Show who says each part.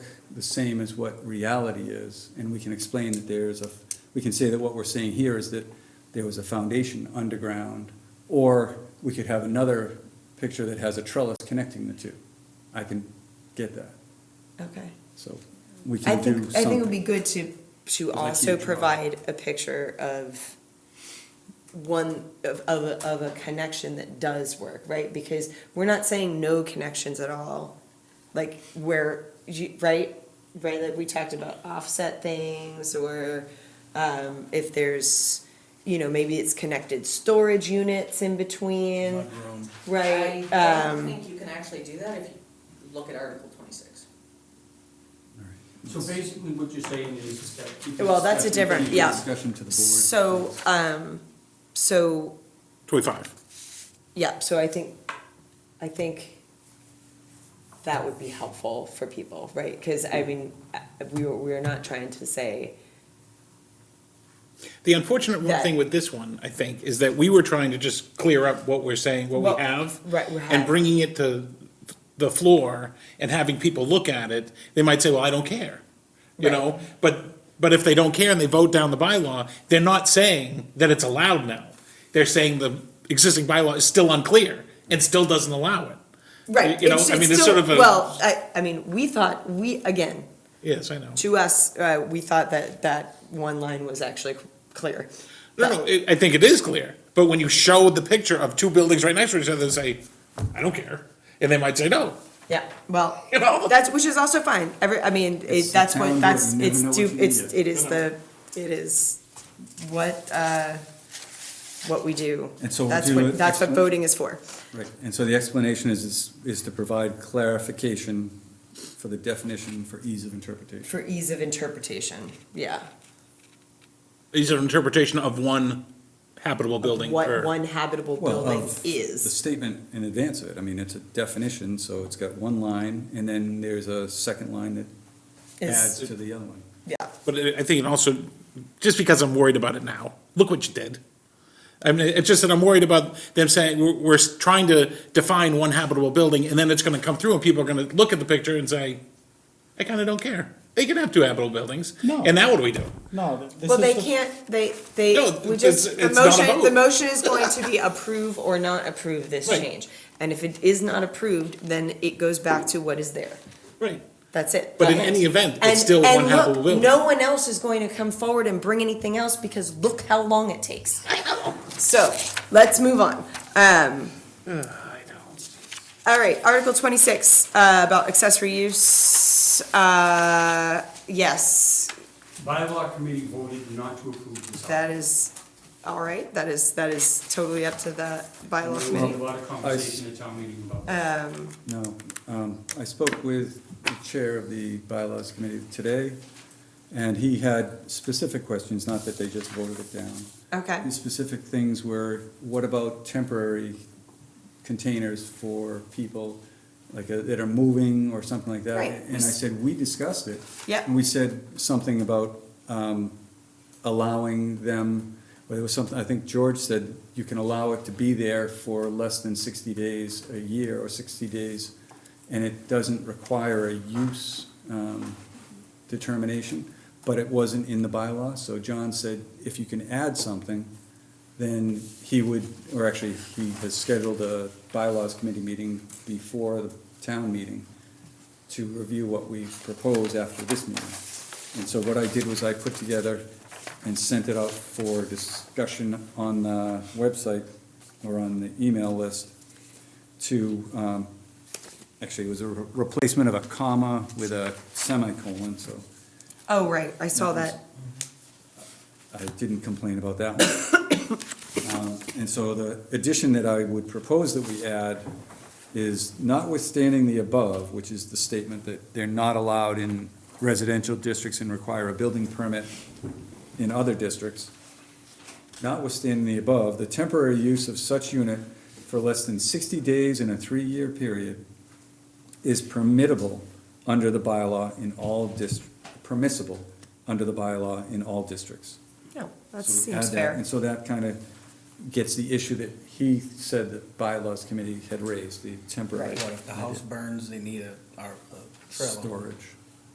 Speaker 1: the same as what reality is, and we can explain that there is a, we can say that what we're saying here is that there was a foundation underground, or we could have another picture that has a trellis connecting the two. I can get that,
Speaker 2: Okay.
Speaker 1: so we
Speaker 2: I
Speaker 1: can do
Speaker 2: think,
Speaker 1: something.
Speaker 2: I think it would be good to, to
Speaker 1: Like
Speaker 2: also
Speaker 1: you draw.
Speaker 2: provide a picture of one, of, of, a- of a connection that does work, right? Because we're not saying no connections at all, like where, you, right? Right, like we talked about offset things or, um, if there's, you know, maybe it's connected storage units in between,
Speaker 3: Mudroom.
Speaker 2: right?
Speaker 4: I
Speaker 2: Um,
Speaker 4: don't think you can actually do that if you look at Article twenty-six.
Speaker 3: So basically what you're saying is that. you can
Speaker 2: Well, that's a
Speaker 3: discuss-
Speaker 2: different-
Speaker 1: Leave the
Speaker 2: yeah.
Speaker 1: Discussion to the board.
Speaker 2: So, um, so,
Speaker 5: Twenty-five.
Speaker 2: yeah, so I think, I think that would be helpful for people, right? Because I mean, uh, we were, we were not trying to say,
Speaker 5: The unfortunate one
Speaker 2: That-
Speaker 5: thing with this one, I think, is that we were trying to just clear up what we're saying, what
Speaker 2: Well,
Speaker 5: we have.
Speaker 2: right, we have.
Speaker 5: And bringing it to the floor and having people look at it, they might say, well, I don't care. You
Speaker 2: Right.
Speaker 5: know, but, but if they don't care and they vote down the bylaw, they're not saying that it's allowed now. They're saying the existing bylaw is still unclear and still doesn't allow it.
Speaker 2: right?
Speaker 5: You know, I mean, it's sort of a-
Speaker 2: Well, I, I mean, we thought, we, again,
Speaker 5: Yes, I know.
Speaker 2: to us, uh, we thought that that one line was actually clear.
Speaker 5: No,
Speaker 2: But-
Speaker 5: no, I I think it is clear, but when you show the picture of two buildings right next to each other, they say, I don't care. And they might say, no,
Speaker 2: Yeah, well,
Speaker 5: You know?
Speaker 2: that's, which is also fine, every, I mean,
Speaker 1: It's
Speaker 2: it,
Speaker 1: the
Speaker 2: that's
Speaker 1: town
Speaker 2: what,
Speaker 1: board,
Speaker 2: that's,
Speaker 1: you never know
Speaker 2: it's,
Speaker 1: what
Speaker 2: do-
Speaker 1: you
Speaker 2: it's,
Speaker 1: get.
Speaker 2: it is the, it is what, uh, what we do.
Speaker 1: And so we'll
Speaker 2: That's
Speaker 1: do
Speaker 2: what,
Speaker 1: it-
Speaker 2: that's what voting is for.
Speaker 1: Right, and so the explanation is- is, is to provide clarification for the definition for ease of interpretation.
Speaker 2: For ease of interpretation, yeah.
Speaker 5: These are interpretation of one habitable building
Speaker 2: What
Speaker 5: or-
Speaker 2: one habitable
Speaker 1: Well,
Speaker 2: building
Speaker 1: of The
Speaker 2: is,
Speaker 1: statement in advance of it, I mean, it's a definition, so it's got one line, and then there's a second line that adds
Speaker 2: is,
Speaker 1: to the other one.
Speaker 2: yeah,
Speaker 5: but I I think it also, just because I'm worried about it now, look what you did. I mean, it's just that I'm worried about them saying, we're, we're trying to define one habitable building and then it's gonna come through and people are gonna look at the picture and say, I kinda don't care. They can have two habitable buildings.
Speaker 3: No.
Speaker 5: And now what do we do?
Speaker 3: No, th- this is.
Speaker 2: well, they
Speaker 3: the-
Speaker 2: can't, they, they,
Speaker 5: No,
Speaker 2: we
Speaker 5: it's-
Speaker 2: just, the
Speaker 5: it's not a
Speaker 2: motion,
Speaker 5: vote.
Speaker 2: the motion is going to be approve or not approve this
Speaker 5: Right.
Speaker 2: change. And if it is not approved, then it goes back to what is there.
Speaker 5: Right.
Speaker 2: That's it.
Speaker 5: But in
Speaker 2: That's
Speaker 5: any
Speaker 2: it.
Speaker 5: event, it's
Speaker 2: And-
Speaker 5: still
Speaker 2: and
Speaker 5: one
Speaker 2: look,
Speaker 5: habitable building.
Speaker 2: No one else is going to come forward and bring anything else because look how long it takes. So let's move on. Um, all right, Article twenty-six, uh, about accessory use, uh, yes,
Speaker 3: Bylaw committee voted not to approve this.
Speaker 2: that is, all right, that is, that is totally up to the bylaw
Speaker 3: There was a
Speaker 2: committee.
Speaker 3: lot of conversation at town meeting about that.
Speaker 2: Um,
Speaker 1: No, um, I spoke with the chair of the bylaws committee today, and he had specific questions, not that they just voted it down.
Speaker 2: okay,
Speaker 1: The specific things were, what about temporary containers for people, like, uh, that are moving or something like that?
Speaker 2: Right.
Speaker 1: And I said, we discussed it.
Speaker 2: Yep.
Speaker 1: And we said something about, um, allowing them, well, there was something, I think George said, you can allow it to be there for less than sixty days a year or sixty days, and it doesn't require a use, um, determination, but it wasn't in the bylaw, so John said, if you can add something, then he would, or actually, he has scheduled a bylaws committee meeting before the town meeting to review what we propose after this meeting. And so what I did was I put together and sent it out for discussion on the website or on the email list to, um, actually, it was a re- replacement of a comma with a semicolon, so
Speaker 2: oh, right, I saw that,
Speaker 1: I didn't complain about that one. Um, And so the addition that I would propose that we add is notwithstanding the above, which is the statement that they're not allowed in residential districts and require a building permit in other districts. Notwithstanding the above, the temporary use of such unit for less than sixty days in a three-year period is permittable under the bylaw in all dist, permissible under the bylaw in all districts.
Speaker 2: no, Oh, that
Speaker 1: So we add
Speaker 2: seems
Speaker 1: that,
Speaker 2: fair.
Speaker 1: And so that kind of gets the issue that he said that bylaws committee had raised, the temporary
Speaker 2: Right.
Speaker 6: What if the house burns, they need a, our, a trailer?
Speaker 1: storage.